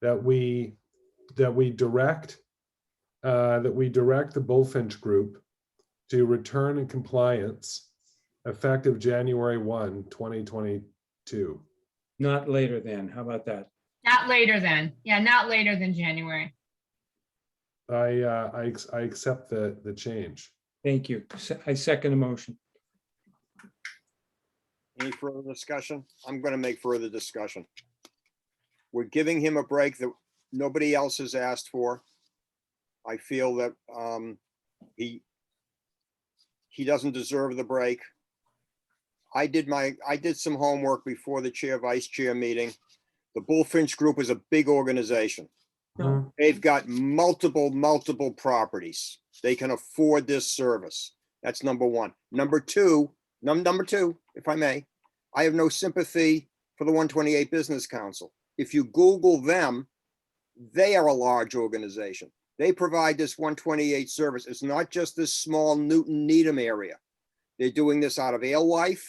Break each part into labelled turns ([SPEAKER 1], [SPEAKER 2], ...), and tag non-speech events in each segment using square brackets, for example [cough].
[SPEAKER 1] that we, that we direct, uh, that we direct the Bullfinch Group to return in compliance effective January 1, 2022.
[SPEAKER 2] Not later than, how about that?
[SPEAKER 3] Not later than, yeah, not later than January.
[SPEAKER 1] I, uh, I, ex- I accept the, the change.
[SPEAKER 2] Thank you. Se- I second the motion.
[SPEAKER 4] Any further discussion? I'm gonna make further discussion. We're giving him a break that nobody else has asked for. I feel that um he he doesn't deserve the break. I did my, I did some homework before the chair, vice chair meeting. The Bullfinch Group is a big organization.
[SPEAKER 2] No.
[SPEAKER 4] They've got multiple, multiple properties. They can afford this service. That's number one. Number two, num- number two, if I may, I have no sympathy for the one twenty-eight Business Council. If you Google them, they are a large organization. They provide this one twenty-eight service. It's not just this small Newton Needham area. They're doing this out of Alewife.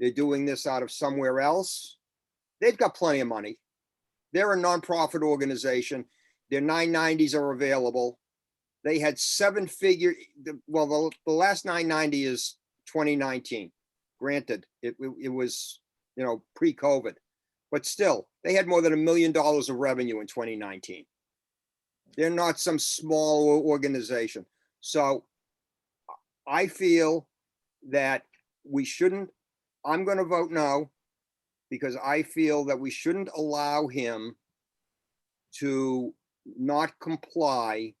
[SPEAKER 4] They're doing this out of somewhere else. They've got plenty of money. They're a nonprofit organization their nine nineties are available. They had seven figure, the- well, the, the last nine ninety is twenty nineteen. Granted, it, it it was, you know, pre-COVID. But still, they had more than a million dollars of revenue in twenty nineteen. They're not some small o- organization. So I feel that we shouldn't, I'm gonna vote no because I feel that we shouldn't allow him to not comply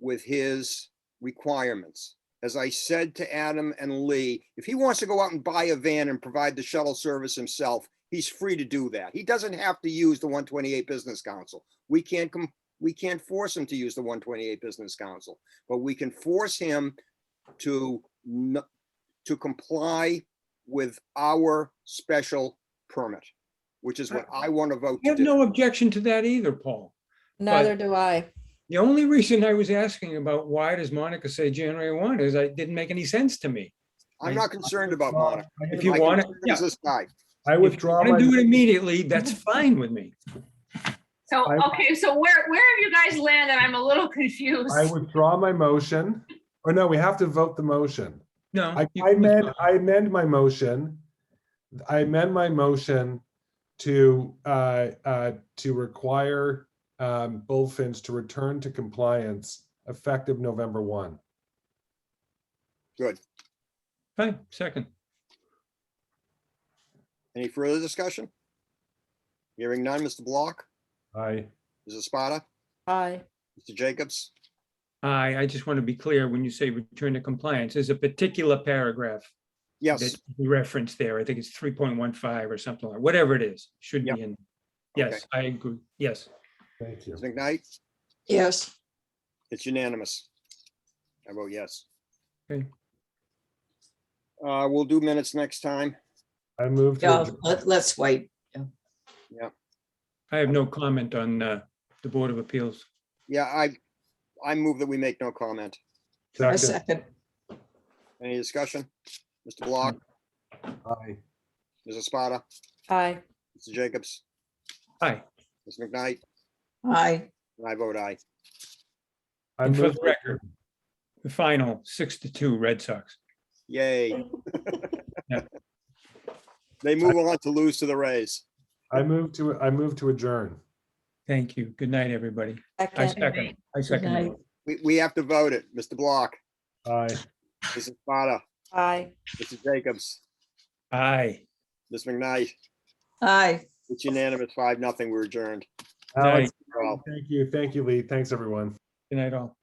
[SPEAKER 4] with his requirements. As I said to Adam and Lee, if he wants to go out and buy a van and provide the shuttle service himself, he's free to do that. He doesn't have to use the one twenty-eight Business Council. We can't com- we can't force him to use the one twenty-eight Business Council, but we can force him to n- to comply with our special permit, which is what I want to vote
[SPEAKER 2] I
[SPEAKER 4] to
[SPEAKER 2] have
[SPEAKER 4] do.
[SPEAKER 2] no objection to that either, Paul.
[SPEAKER 5] Neither do I.
[SPEAKER 2] The only reason I was asking about why does Monica say January one is I didn't make any sense to me.
[SPEAKER 4] I'm not concerned about
[SPEAKER 1] Well,
[SPEAKER 4] Monica.
[SPEAKER 1] I-
[SPEAKER 2] If you
[SPEAKER 4] My
[SPEAKER 2] want it,
[SPEAKER 4] concern
[SPEAKER 2] yeah.
[SPEAKER 4] is This guy.
[SPEAKER 1] I withdraw
[SPEAKER 2] If you
[SPEAKER 1] my,
[SPEAKER 2] wanna do it immediately, that's fine with me.
[SPEAKER 3] So,
[SPEAKER 1] I-
[SPEAKER 3] okay, so where, where have you guys landed? I'm a little [laughs] confused.
[SPEAKER 1] I withdraw my motion, or no, we have to vote the motion.
[SPEAKER 2] No.
[SPEAKER 1] I
[SPEAKER 2] you
[SPEAKER 1] I
[SPEAKER 2] can
[SPEAKER 1] amend,
[SPEAKER 2] withdraw.
[SPEAKER 1] I amend my motion. I amend my motion to, uh, uh, to require, um, Bullfinch to return to compliance effective November one.
[SPEAKER 4] Good.
[SPEAKER 2] Fine, second.
[SPEAKER 4] Any further discussion? Hearing none, Mr. Block,
[SPEAKER 1] I,
[SPEAKER 4] Mrs. Spada,
[SPEAKER 5] I,
[SPEAKER 4] Mr. Jacobs,
[SPEAKER 2] I, I just want to be clear, when you say return to compliance, there's a particular paragraph
[SPEAKER 4] yes,
[SPEAKER 2] that you referenced there. I think it's three point one five or something, or whatever it is, should
[SPEAKER 4] Yep.
[SPEAKER 2] be in.
[SPEAKER 4] Okay.
[SPEAKER 2] Yes, I agree. Yes.
[SPEAKER 1] thank you.
[SPEAKER 4] Ms. McKnight,
[SPEAKER 5] yes,
[SPEAKER 4] it's unanimous. I vote yes.
[SPEAKER 2] Okay.
[SPEAKER 4] Uh, we'll do minutes next time.
[SPEAKER 1] I move to,
[SPEAKER 5] yeah,
[SPEAKER 1] adjourn.
[SPEAKER 5] let, let's wait.
[SPEAKER 2] I have no comment on uh, the Board of Appeals.
[SPEAKER 4] Yeah, I, I move that we make no comment.
[SPEAKER 5] A
[SPEAKER 1] second,
[SPEAKER 5] second,
[SPEAKER 4] Any discussion? Mr. Block,
[SPEAKER 1] aye.
[SPEAKER 4] Mrs. Spada,
[SPEAKER 5] I,
[SPEAKER 4] Mr. Jacobs,
[SPEAKER 2] Hi,
[SPEAKER 4] Ms. McKnight,
[SPEAKER 5] I,
[SPEAKER 4] and I vote aye.
[SPEAKER 1] I
[SPEAKER 2] and for
[SPEAKER 1] move
[SPEAKER 2] the record, the final six to two Red Sox.
[SPEAKER 4] Yay.
[SPEAKER 2] [laughs] Yeah.
[SPEAKER 4] They move on to lose to the Rays.
[SPEAKER 1] I move to, I move to adjourn.
[SPEAKER 2] Thank you. Good night, everybody. I
[SPEAKER 5] second,
[SPEAKER 2] second, I second.
[SPEAKER 5] night.
[SPEAKER 2] that.
[SPEAKER 4] We, we have to vote it. Mr. Block,
[SPEAKER 1] Aye.
[SPEAKER 4] Mrs. Spada,
[SPEAKER 5] I,
[SPEAKER 4] Mr. Jacobs,
[SPEAKER 2] Aye.
[SPEAKER 4] Ms. McKnight,
[SPEAKER 5] I.
[SPEAKER 4] it's unanimous, five, nothing, we're adjourned.
[SPEAKER 1] Alex,
[SPEAKER 4] Well,
[SPEAKER 1] thank you, thank you, Lee. Thanks, everyone.
[SPEAKER 2] Good night all.